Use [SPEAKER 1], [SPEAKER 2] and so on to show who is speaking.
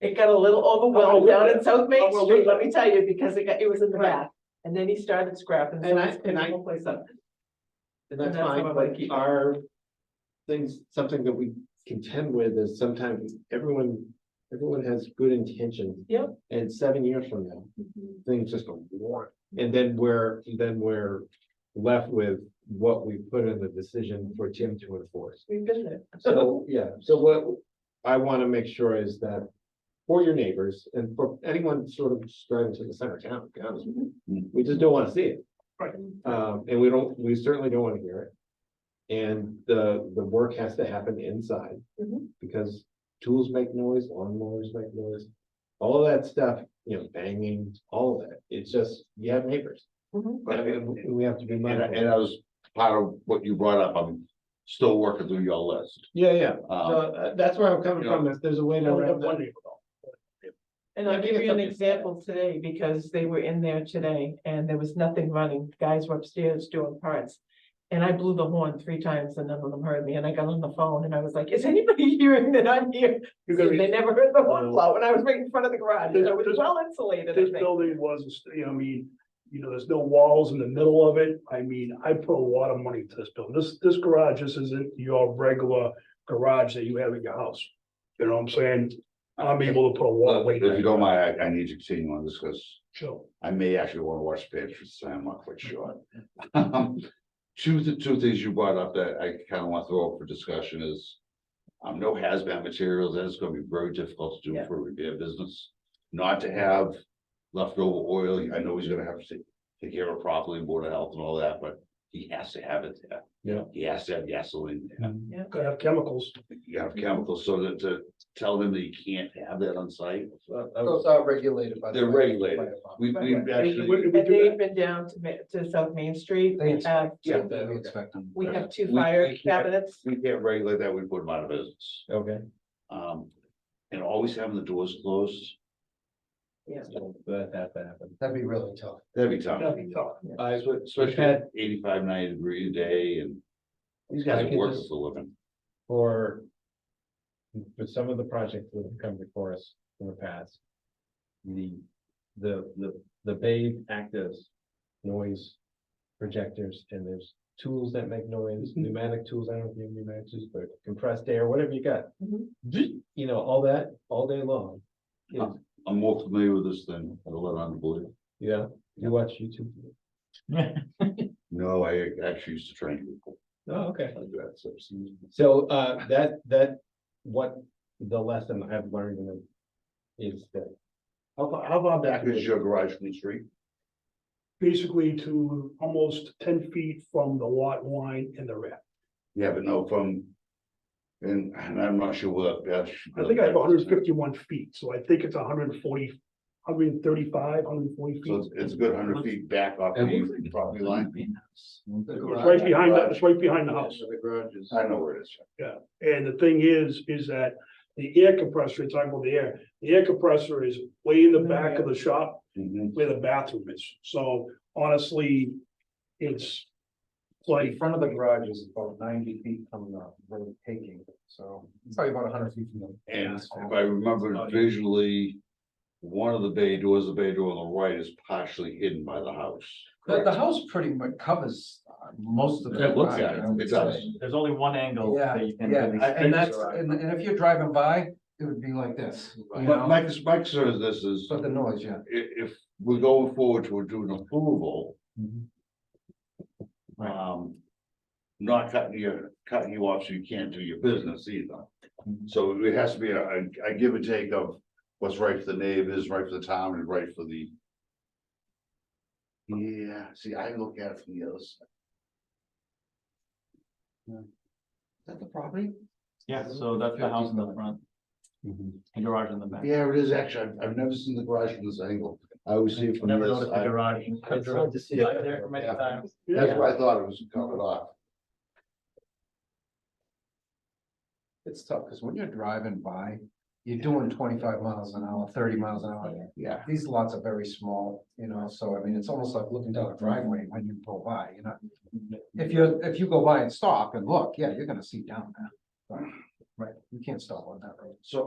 [SPEAKER 1] It got a little overwhelmed down in South Main
[SPEAKER 2] Oh, well,
[SPEAKER 1] Street,
[SPEAKER 2] look.
[SPEAKER 1] let me tell you, because it got, it was in the
[SPEAKER 2] Right.
[SPEAKER 1] back. And then he started scrapping, so
[SPEAKER 2] And I-
[SPEAKER 1] it's putting
[SPEAKER 2] and
[SPEAKER 1] the
[SPEAKER 2] I-
[SPEAKER 1] whole place up.
[SPEAKER 2] And that's
[SPEAKER 1] And that's
[SPEAKER 2] fine,
[SPEAKER 1] how I like
[SPEAKER 2] but
[SPEAKER 1] it.
[SPEAKER 2] our things, something that we contend with is sometimes everyone, everyone has good intentions.
[SPEAKER 1] Yep. Mm-hmm.
[SPEAKER 2] And seven years from now, things just go war. And then we're, then we're left with what we put in the decision for Tim to enforce.
[SPEAKER 1] We've been there.
[SPEAKER 2] So, yeah, so what I want to make sure is that for your neighbors and for anyone sort of just driving to the center of town, to be honest with you, we just don't want to see it.
[SPEAKER 3] Right.
[SPEAKER 2] Um, and we don't, we certainly don't want to hear it. And the, the work has to happen inside
[SPEAKER 1] Mhm.
[SPEAKER 2] because tools make noise, lawnmowers make noise. All of that stuff, you know, banging, all of that. It's just, you have neighbors.
[SPEAKER 1] Mhm.
[SPEAKER 3] But I
[SPEAKER 2] And
[SPEAKER 3] mean,
[SPEAKER 2] we- we have to be
[SPEAKER 3] and, I-
[SPEAKER 2] mindful.
[SPEAKER 3] and that was part of what you brought up, I'm still working through your list.
[SPEAKER 2] Yeah, yeah. So
[SPEAKER 3] Uh,
[SPEAKER 2] uh, that's where I'm coming
[SPEAKER 3] you know,
[SPEAKER 2] from. If there's a way to. wrap that-
[SPEAKER 1] And I'll
[SPEAKER 2] I think
[SPEAKER 1] give
[SPEAKER 2] it's
[SPEAKER 1] you an
[SPEAKER 2] something-
[SPEAKER 1] example today, because they were in there today and there was nothing running, guys were upstairs doing parts. And I blew the horn three times and none of them heard me, and I got on the phone and I was like, is anybody hearing that I'm here? And
[SPEAKER 4] You're gonna
[SPEAKER 1] They
[SPEAKER 4] be,
[SPEAKER 1] never heard the horn
[SPEAKER 4] Oh.
[SPEAKER 1] blow, and I was right in front of the garage, and I was
[SPEAKER 4] This-
[SPEAKER 1] well insulated,
[SPEAKER 4] this
[SPEAKER 1] I think.
[SPEAKER 4] building was, you know, I mean, you know, there's no walls in the middle of it. I mean, I put a lot of money into this building. This, this garage, this isn't your regular garage that you have in your house. You know what I'm saying? I'm able to put a wall
[SPEAKER 3] well,
[SPEAKER 4] away.
[SPEAKER 3] Uh, If you don't mind, I, I need to see you on this, because
[SPEAKER 4] Sure.
[SPEAKER 3] I may actually want to watch the Patriots, tonight, I'm not quite sure. Um, Two, th- two things you brought up that I kind of want to throw up for discussion is. Um, no hazmat materials, that is going to be very difficult to do
[SPEAKER 1] Yeah.
[SPEAKER 3] for a repair business, not to have leftover oil, I know he's gonna have to. take- Take care of it properly, board of health and all that, but he has to have it there.
[SPEAKER 2] Yeah.
[SPEAKER 3] He has to have gasoline there,
[SPEAKER 4] Could have chemicals.
[SPEAKER 3] you have chemicals, so that to tell them that you can't have that on site,
[SPEAKER 2] Well, I was-
[SPEAKER 5] Those are regulated by. the
[SPEAKER 3] uh, They're
[SPEAKER 5] way,
[SPEAKER 3] regulated.
[SPEAKER 5] by the law.
[SPEAKER 3] we, we
[SPEAKER 1] Right.
[SPEAKER 3] actually.
[SPEAKER 4] Would-
[SPEAKER 1] And
[SPEAKER 4] would you-
[SPEAKER 1] they've been down to, Ma- to South Main Street, we
[SPEAKER 5] Thanks.
[SPEAKER 1] have,
[SPEAKER 3] Yeah.
[SPEAKER 5] So that we expect them.
[SPEAKER 1] we have two
[SPEAKER 3] We-
[SPEAKER 1] fire
[SPEAKER 3] we can't-
[SPEAKER 1] cabinets.
[SPEAKER 3] We can't regulate that, we put them out of business.
[SPEAKER 2] Okay.
[SPEAKER 3] Um, and always having the doors closed,
[SPEAKER 2] So That has to happen.
[SPEAKER 5] That'd be really tough.
[SPEAKER 3] that'd be tough.
[SPEAKER 4] That'd be tough.
[SPEAKER 2] I
[SPEAKER 3] Espe- Especially at eighty-five, ninety degree a day and these guys
[SPEAKER 2] I
[SPEAKER 3] are
[SPEAKER 2] could
[SPEAKER 3] working
[SPEAKER 2] just-
[SPEAKER 3] for a living.
[SPEAKER 2] for. For some of the projects that have come before us in the past. The, the, the, the Babe actives noise projectors and there's tools that make noise, pneumatic tools, I don't know if you have pneumatic tools, but compressed air, whatever you got.
[SPEAKER 1] Mhm.
[SPEAKER 2] You know, all that, all day long. You know,
[SPEAKER 3] I'm more familiar with this than a lot of unbelievable.
[SPEAKER 2] Yeah, you watch YouTube.
[SPEAKER 3] No, I actually used to train people.
[SPEAKER 2] Oh, okay.
[SPEAKER 3] I do that, so it's-
[SPEAKER 2] So uh that that what the lesson I've learned in it is that. How far, how far back
[SPEAKER 3] Here's
[SPEAKER 2] is
[SPEAKER 3] your garage from the street.
[SPEAKER 4] Basically to almost ten feet from the lot line in the rear.
[SPEAKER 3] Yeah, but no, from. And, and I'm not sure what that's.
[SPEAKER 4] I think I have hundred and fifty-one feet, so I think it's 140, 135, 140
[SPEAKER 3] So it's,
[SPEAKER 4] feet.
[SPEAKER 3] it's a good hundred feet back off the property line.
[SPEAKER 4] It's right behind, the- it's right behind the house.
[SPEAKER 5] The garages.
[SPEAKER 3] I know where it is.
[SPEAKER 4] And the thing is, is that the air compressor, you're talking about the air, the air compressor is way in the back of the shop
[SPEAKER 3] Mhm.
[SPEAKER 4] where the bathroom is. So honestly, it's
[SPEAKER 5] In
[SPEAKER 4] like,
[SPEAKER 5] front of the garage is about ninety feet coming up, really taking, so it's probably about hundred feet from the.
[SPEAKER 3] And if I remember visually, one of the bay doors, the bay door on the right is partially hidden by the house.
[SPEAKER 5] The, the house pretty much covers uh, most of the.
[SPEAKER 3] It looks
[SPEAKER 5] garage,
[SPEAKER 3] like it.
[SPEAKER 5] I would
[SPEAKER 3] It does.
[SPEAKER 5] say.
[SPEAKER 6] There's only one angle
[SPEAKER 5] Yeah,
[SPEAKER 6] that you can.
[SPEAKER 5] yeah,
[SPEAKER 6] really
[SPEAKER 5] and that's,
[SPEAKER 6] fix.
[SPEAKER 5] and, and if you're driving by, it would be like this, you
[SPEAKER 3] But
[SPEAKER 5] know,
[SPEAKER 3] my, my concern is this is, i-
[SPEAKER 5] but the noise, yeah.
[SPEAKER 3] if we're going forward to do an approval.
[SPEAKER 6] Mhm.
[SPEAKER 5] Mm-hmm.
[SPEAKER 6] Right.
[SPEAKER 3] Um, not cutting you, cutting you off so you can't do your business either.
[SPEAKER 5] Mm-hmm.
[SPEAKER 3] So it has to be a, a- a give and take of what's right for the neighbors, right for the town and right for the. Yeah, see, I look at it from the other side. Is that the property?
[SPEAKER 6] Yeah, so that's the house in the front, and garage in the back.
[SPEAKER 3] Yeah, it is actually. I've, I've never seen the garage from this angle. I always see it from
[SPEAKER 6] Never
[SPEAKER 3] this.
[SPEAKER 6] noticed the
[SPEAKER 3] side.
[SPEAKER 6] garage.
[SPEAKER 2] I've tried to see
[SPEAKER 6] Drive there
[SPEAKER 2] it.
[SPEAKER 6] for many
[SPEAKER 3] Yeah.
[SPEAKER 6] times.
[SPEAKER 3] That's why I thought it was covered off.
[SPEAKER 5] It's tough, because when you're driving by, you're doing twenty-five miles an hour, thirty miles an hour.
[SPEAKER 3] Yeah.
[SPEAKER 5] These lots are very small, you know, so I mean, it's almost like looking down a driveway when you go by, you know. If you're, if you go by and stop and look, yeah, you're gonna see down there. Right, you can't stop on that road.
[SPEAKER 3] So